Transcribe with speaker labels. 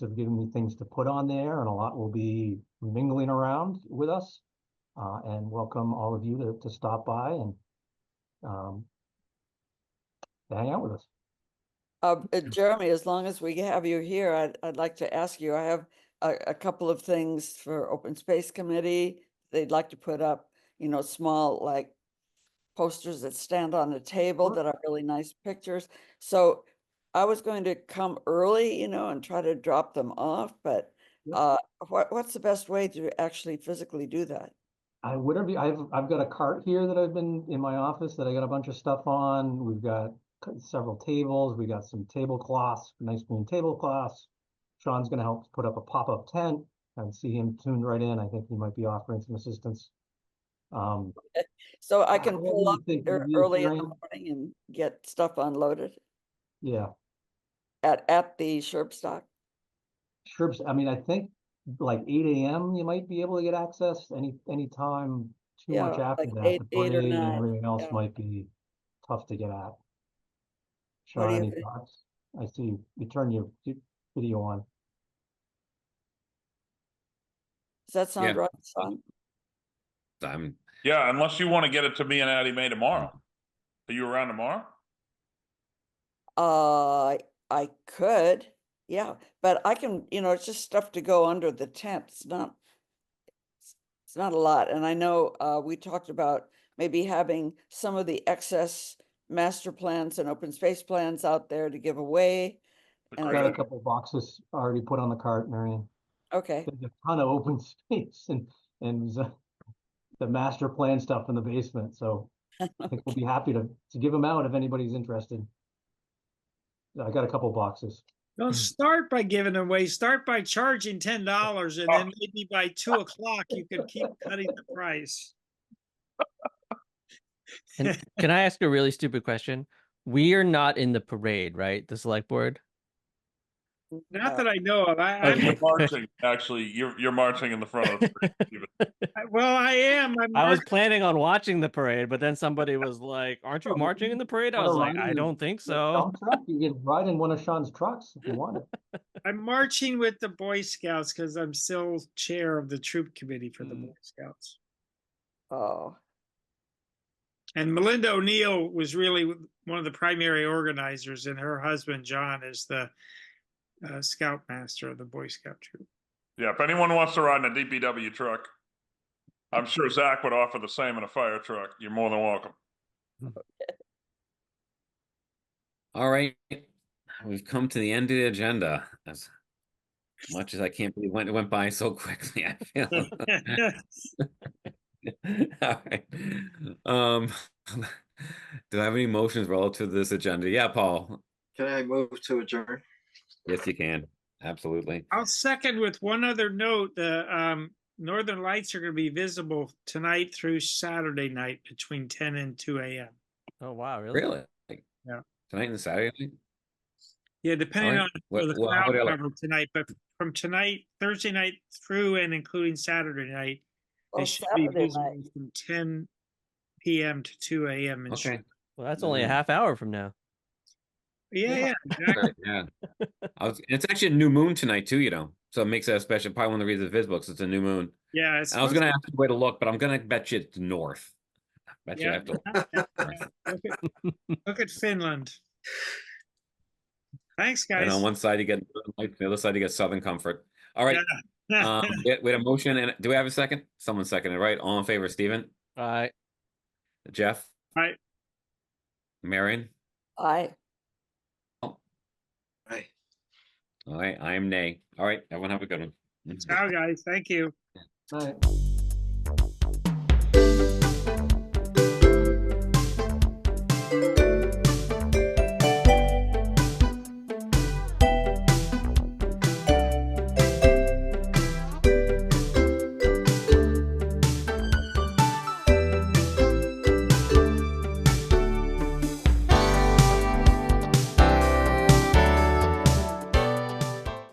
Speaker 1: have given me things to put on there, and a lot will be mingling around with us. Uh, and welcome all of you to, to stop by and um, to hang out with us.
Speaker 2: Uh, uh, Jeremy, as long as we have you here, I'd, I'd like to ask you, I have a, a couple of things for Open Space Committee. They'd like to put up, you know, small like posters that stand on a table
Speaker 1: Sure.
Speaker 2: that are really nice pictures. So I was going to come early, you know, and try to drop them off, but
Speaker 1: Yep.
Speaker 2: uh, what, what's the best way to actually physically do that?
Speaker 1: I whatever you- I've I've got a cart here that I've been in my office that I got a bunch of stuff on. We've got c- several tables. We got some tablecloths, nice green tablecloths. Sean's gonna help put up a pop-up tent. I can see him tuned right in. I think he might be offering some assistance. Um,
Speaker 2: So I
Speaker 1: Uh,
Speaker 2: can
Speaker 1: what do
Speaker 2: pull
Speaker 1: you
Speaker 2: up
Speaker 1: think would
Speaker 2: there
Speaker 1: be a
Speaker 2: early in the
Speaker 1: grand-
Speaker 2: morning and get stuff unloaded
Speaker 1: yeah,
Speaker 2: at, at the Sherb Stock.
Speaker 1: sure. I mean, I think like eight AM you might be able to get access any any time too much
Speaker 2: Yeah,
Speaker 1: after
Speaker 2: like
Speaker 1: that.
Speaker 2: eight-
Speaker 1: The
Speaker 2: eight or
Speaker 1: parade and
Speaker 2: nine,
Speaker 1: everything else
Speaker 2: yeah.
Speaker 1: might be tough to get at.
Speaker 2: What do
Speaker 1: Sean,
Speaker 2: you
Speaker 1: any
Speaker 2: think?
Speaker 1: thoughts? I see you, you turned your vi- video on.
Speaker 2: Does that sound
Speaker 3: Yeah.
Speaker 2: right, Sean?
Speaker 3: I'm
Speaker 4: Yeah, unless you want to get it to me and Addie Mae tomorrow. Are you around tomorrow?
Speaker 2: Uh, I could, yeah, but I can, you know, it's just stuff to go under the tent. It's not, it's- it's not a lot. And I know, uh, we talked about maybe having some of the excess master plans and open space plans out there to give away.
Speaker 4: The
Speaker 2: And
Speaker 1: Got a
Speaker 2: I
Speaker 4: critter.
Speaker 2: think-
Speaker 1: couple boxes already put on the cart, Marion.
Speaker 2: Okay,
Speaker 1: There's a ton of open space and, and z- the master plan stuff in the basement, so I think we'll be happy to, to give them out if anybody's interested. I got a couple boxes.
Speaker 5: Mm-hmm.
Speaker 6: Don't start by giving away, start by charging ten dollars and then maybe by two o'clock you could keep cutting the price.
Speaker 5: And can I ask a really stupid question? We are not in the parade, right? The select board?
Speaker 2: Uh,
Speaker 6: Not that I know of, I,
Speaker 4: And
Speaker 6: I'm,
Speaker 4: You're marching, actually, you're, you're marching in the front of the parade, Stephen.
Speaker 6: I- well, I am, I'm,
Speaker 5: I was
Speaker 6: marching-
Speaker 5: planning on watching the parade, but then somebody was like, Aren't
Speaker 1: Oh,
Speaker 5: you marching in the parade? I
Speaker 1: wanna
Speaker 5: was like,
Speaker 1: ride
Speaker 5: I
Speaker 1: in-
Speaker 5: don't think
Speaker 1: Yeah,
Speaker 5: so.
Speaker 1: dump truck, You can ride in one of Sean's trucks if you want it.
Speaker 6: I'm marching with the Boy Scouts because I'm still chair of the troop committee for the
Speaker 5: Mm.
Speaker 6: Boy Scouts.
Speaker 2: Oh,
Speaker 6: And Melinda O'Neill was really one of the primary organizers and her husband John is the uh, scoutmaster of the Boy Scout troop.
Speaker 4: Yeah, if anyone wants to ride in a DPW truck, I'm sure Zach would offer the same in a fire truck. You're more than welcome.
Speaker 3: all right. We've come to the end of the agenda. As much as I can't believe when it went by so quickly, I feel. all right. Um, do I have any motions relative to this agenda? Yeah, Paul.
Speaker 7: Can I move to adjourn?
Speaker 3: Yes, you can. Absolutely.
Speaker 6: I'll second with one other note, the um northern lights are gonna be visible tonight through Saturday night between ten and two AM.
Speaker 5: Oh wow, really?
Speaker 3: Really?
Speaker 6: Yeah.
Speaker 3: Tonight and Saturday night?
Speaker 6: Yeah, depending
Speaker 3: Alright,
Speaker 6: on
Speaker 3: what-
Speaker 6: the
Speaker 3: what- how
Speaker 6: cloud
Speaker 3: would I like-
Speaker 6: cover tonight, but from tonight, Thursday night through and including Saturday night,
Speaker 2: well,
Speaker 6: it should be
Speaker 2: Oh, Saturday night.
Speaker 6: visible from ten PM to two AM. in
Speaker 3: Okay.
Speaker 6: Sh-
Speaker 5: Well, that's only a
Speaker 3: Mm.
Speaker 5: half hour from now.
Speaker 6: Yeah,
Speaker 3: All
Speaker 6: yeah, exactly.
Speaker 3: right, Yeah. I was, it's actually a new moon tonight too, you know, so it makes it a special, probably one of the reasons the viz books, it's a new moon.
Speaker 6: Yeah. it's
Speaker 3: I was gonna ask you where to look, but I'm gonna bet you it's north. I Bet you I
Speaker 6: Yeah.
Speaker 3: have to. look.
Speaker 6: Look at- look at Finland. Thanks,
Speaker 3: And
Speaker 6: guys.
Speaker 3: on one side you get, Northern Lights, the other side you get southern comfort. All right, um, we had- we had a motion and do we have a second? Someone seconded, right? All in favor, Stephen,
Speaker 5: All right.
Speaker 3: Jeff?
Speaker 6: Aye.
Speaker 3: Marion?
Speaker 2: I,
Speaker 7: Aye.
Speaker 3: All right, I am nay. All right, everyone have a good one.
Speaker 6: Ciao, guys. Thank you.
Speaker 1: All right.